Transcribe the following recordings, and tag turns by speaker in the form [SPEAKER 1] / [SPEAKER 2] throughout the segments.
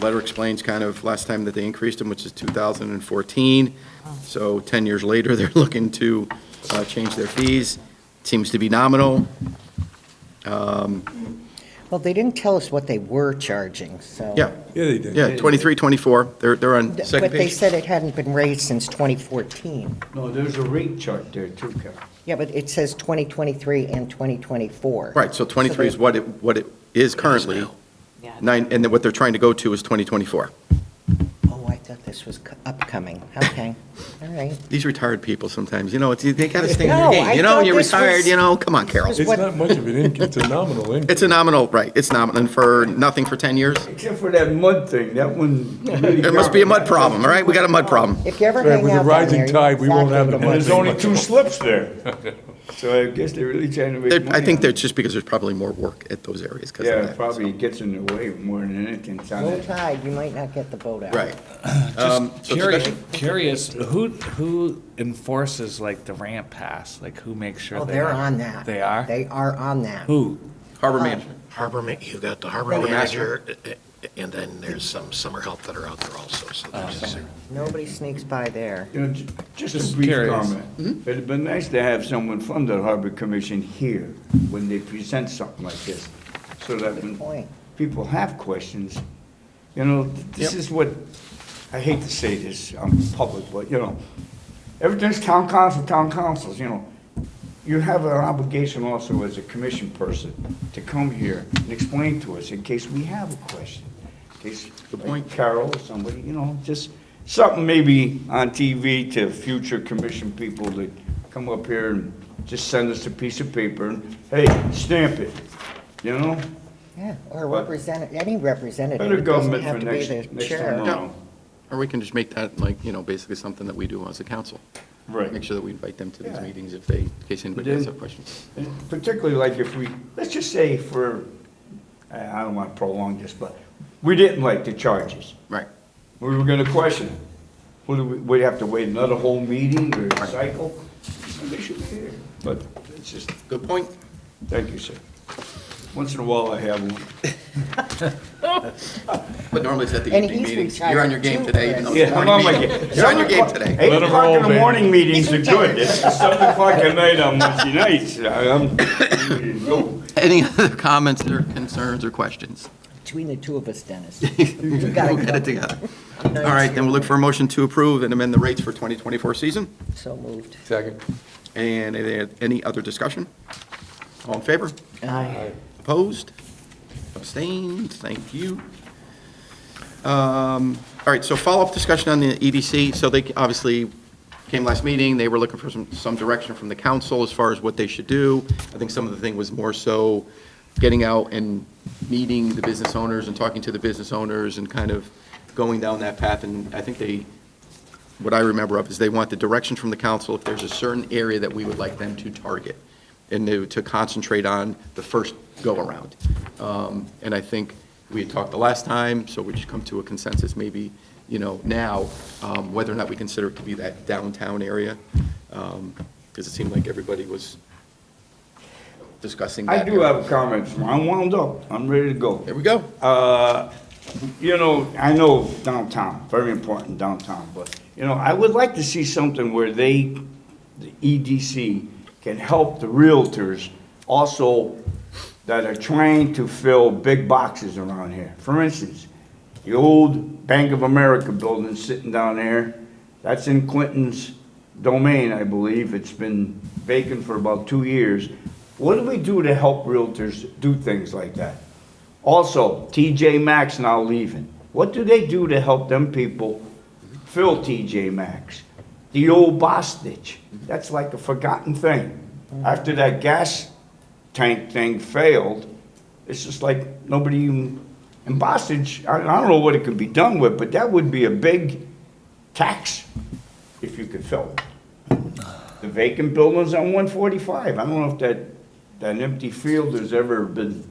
[SPEAKER 1] Letter explains kind of last time that they increased them, which is 2014. So 10 years later, they're looking to uh, change their fees. Seems to be nominal.
[SPEAKER 2] Well, they didn't tell us what they were charging, so.
[SPEAKER 1] Yeah,
[SPEAKER 3] Yeah, they did.
[SPEAKER 1] yeah, 23, 24, they're, they're on second
[SPEAKER 2] But they
[SPEAKER 1] page.
[SPEAKER 2] said it hadn't been raised since 2014.
[SPEAKER 4] No, there's a rate chart there too, Carol.
[SPEAKER 2] Yeah, but it says 2023 and 2024.
[SPEAKER 1] Right, so 23 is what it, what it is currently. Nine, and then what they're trying to go to is 2024.
[SPEAKER 2] Oh, I thought this was cu- upcoming. Okay, all right.
[SPEAKER 1] These retired people sometimes, you know, it's, they gotta stay in
[SPEAKER 2] No,
[SPEAKER 1] their
[SPEAKER 2] I
[SPEAKER 1] game. You know,
[SPEAKER 2] thought
[SPEAKER 1] you're
[SPEAKER 2] this was-
[SPEAKER 1] retired, you know, come on, Carol.
[SPEAKER 2] this
[SPEAKER 3] It's
[SPEAKER 2] What-
[SPEAKER 3] not much of an income, it's a nominal income.
[SPEAKER 1] It's a nominal, right, it's nominal, and for nothing for 10 years?
[SPEAKER 4] Except for that mud thing, that one.
[SPEAKER 1] There must be a mud problem, all right? We got a mud problem.
[SPEAKER 2] If you ever
[SPEAKER 3] Right,
[SPEAKER 2] hang out
[SPEAKER 3] with the
[SPEAKER 2] down
[SPEAKER 3] rising
[SPEAKER 2] there, you
[SPEAKER 3] tide, we
[SPEAKER 2] know
[SPEAKER 3] won't have
[SPEAKER 2] exactly
[SPEAKER 3] the
[SPEAKER 2] what
[SPEAKER 3] money.
[SPEAKER 4] There's only two slips there. So I guess they're really trying to make
[SPEAKER 1] They're-
[SPEAKER 4] money.
[SPEAKER 1] I think
[SPEAKER 4] on
[SPEAKER 1] that's
[SPEAKER 4] it.
[SPEAKER 1] just because there's probably more work at those areas because of
[SPEAKER 4] Yeah,
[SPEAKER 1] that.
[SPEAKER 4] probably it gets in the way more than anything. it's on
[SPEAKER 2] Low
[SPEAKER 4] it.
[SPEAKER 2] tide, you might not get the boat out.
[SPEAKER 1] Right. Um,
[SPEAKER 5] Just
[SPEAKER 1] so
[SPEAKER 5] curious,
[SPEAKER 1] discussion-
[SPEAKER 5] curious, who, who enforces like the ramp pass? Like who makes sure?
[SPEAKER 2] Oh,
[SPEAKER 5] they
[SPEAKER 2] they're
[SPEAKER 5] are-
[SPEAKER 2] on that.
[SPEAKER 5] They are?
[SPEAKER 2] They are on that.
[SPEAKER 5] Who?
[SPEAKER 1] Harbor management.
[SPEAKER 6] Harbor, ma- you've got the harbor
[SPEAKER 2] Harbor
[SPEAKER 6] manager, eh, eh, and then there's some summer help that are out there also,
[SPEAKER 5] Uh,
[SPEAKER 6] so there's a
[SPEAKER 2] Nobody sneaks by there.
[SPEAKER 4] You know, ju- just
[SPEAKER 5] Just
[SPEAKER 4] a brief
[SPEAKER 5] curious.
[SPEAKER 1] Mm-hmm.
[SPEAKER 4] comment. It'd been nice to have someone from the Harbor Commission here when they present something like this, so that when
[SPEAKER 2] point.
[SPEAKER 4] people have questions, you know, this is what, I hate to say this, I'm public, but, you know, everything's town council, town councils, you know. You have an obligation also as a commission person to come here and explain to us in case we have a question. In case,
[SPEAKER 1] Good
[SPEAKER 4] like
[SPEAKER 1] point.
[SPEAKER 4] Carol or somebody, you know, just something maybe on TV to future commission people that come up here and just send us a piece of paper and, hey, stamp it, you know?
[SPEAKER 2] Yeah, or
[SPEAKER 4] But-
[SPEAKER 2] representative, any representative.
[SPEAKER 4] Better
[SPEAKER 2] It doesn't
[SPEAKER 4] government
[SPEAKER 2] have
[SPEAKER 4] for
[SPEAKER 2] to be
[SPEAKER 4] next,
[SPEAKER 2] the
[SPEAKER 4] next
[SPEAKER 2] chair.
[SPEAKER 4] time around.
[SPEAKER 1] Or we can just make that like, you know, basically something that we do as a council.
[SPEAKER 4] Right.
[SPEAKER 1] Make sure that we invite them to these
[SPEAKER 4] Yeah.
[SPEAKER 1] meetings if they, in case anybody does have questions.
[SPEAKER 4] And Particularly like if we, let's just say for, I I don't want to prolong this, but we didn't like the charges.
[SPEAKER 1] Right.
[SPEAKER 4] We were gonna question, it. would we, would have to wait another whole meeting or cycle? They should be here, but it's just,
[SPEAKER 1] Good point.
[SPEAKER 4] thank you, sir. Once in a while I have one.
[SPEAKER 1] But normally it's at the
[SPEAKER 2] And
[SPEAKER 1] evening
[SPEAKER 2] he's
[SPEAKER 1] meetings. You're on your
[SPEAKER 2] retired
[SPEAKER 1] game
[SPEAKER 2] too,
[SPEAKER 1] today, even though it's
[SPEAKER 4] Yeah,
[SPEAKER 1] a
[SPEAKER 4] I'm
[SPEAKER 1] morning
[SPEAKER 4] on my
[SPEAKER 1] meeting.
[SPEAKER 4] game.
[SPEAKER 1] You're on your game today.
[SPEAKER 4] Eight
[SPEAKER 3] him
[SPEAKER 4] o'clock in
[SPEAKER 3] roll,
[SPEAKER 4] the
[SPEAKER 3] baby.
[SPEAKER 4] morning meetings are good, it's seven o'clock at night on Wednesday nights, I'm, go.
[SPEAKER 1] Any other comments or concerns or questions?
[SPEAKER 2] Between the two of us, Dennis. You gotta
[SPEAKER 1] We'll get
[SPEAKER 2] go.
[SPEAKER 1] it together.
[SPEAKER 2] I know
[SPEAKER 1] All
[SPEAKER 2] it's
[SPEAKER 1] right, then
[SPEAKER 2] your
[SPEAKER 1] we'll look for a motion to approve and amend the rates for 2024 season.
[SPEAKER 2] So moved.
[SPEAKER 3] Second.
[SPEAKER 1] And any- any other discussion? All in favor?
[SPEAKER 2] Aye.
[SPEAKER 1] Opposed? Abstained? Thank you. Um, All right, so follow-up discussion on the EDC. So they obviously came last meeting, they were looking for some, some direction from the council as far as what they should do. I think some of the thing was more so getting out and meeting the business owners and talking to the business owners and kind of going down that path. And I think they, what I remember of is they want the direction from the council if there's a certain area that we would like them to target and to, to concentrate on the first go-around. Um, And I think we had talked the last time, so we just come to a consensus maybe, you know, now, um, whether or not we consider it to be that downtown area. Because it seemed like everybody was discussing
[SPEAKER 4] I
[SPEAKER 1] that.
[SPEAKER 4] do uh,
[SPEAKER 1] area.
[SPEAKER 4] have comments, I'm wound up, I'm ready to go.
[SPEAKER 1] There we go.
[SPEAKER 4] Uh, You know, I know downtown, very important downtown, but, you know, I would like to see something where they, the EDC, can help the realtors also that are trying to fill big boxes around here. For instance, the old Bank of America building sitting down there, that's in Clinton's domain, I believe. It's been vacant for about two years. What do we do to help realtors do things like that? Also, TJ Maxx now leaving. What do they do to help them people fill TJ Maxx? The old Bostitch, that's like a forgotten thing. After that gas tank thing failed, it's just like nobody even, and Bostitch, I, I don't know what it could be done with, but that would be a big tax if you could fill it. The vacant buildings on one forty-five, I don't know if that, that empty field has ever been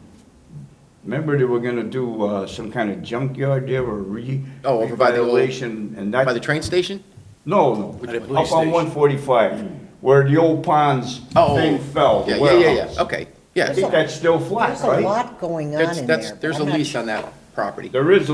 [SPEAKER 4] Remember they were gonna do, uh, some kind of junkyard there or re.
[SPEAKER 1] Oh, over by the old-
[SPEAKER 4] revitalization and that.
[SPEAKER 1] By the train station?
[SPEAKER 4] No,
[SPEAKER 1] By the
[SPEAKER 4] no,
[SPEAKER 1] police
[SPEAKER 4] up on
[SPEAKER 1] station.
[SPEAKER 4] one forty-five, where the old ponds
[SPEAKER 1] Oh.
[SPEAKER 4] thing fell. the
[SPEAKER 1] Yeah, yeah, yeah,
[SPEAKER 4] warehouse.
[SPEAKER 1] yeah. Okay,
[SPEAKER 4] I
[SPEAKER 1] yeah.
[SPEAKER 4] think that's still flat,
[SPEAKER 2] There's a
[SPEAKER 4] right?
[SPEAKER 2] lot going on
[SPEAKER 1] That's,
[SPEAKER 2] in there.
[SPEAKER 1] that's,
[SPEAKER 2] but
[SPEAKER 1] there's a
[SPEAKER 2] I'm not
[SPEAKER 1] lease on that property.
[SPEAKER 4] There is a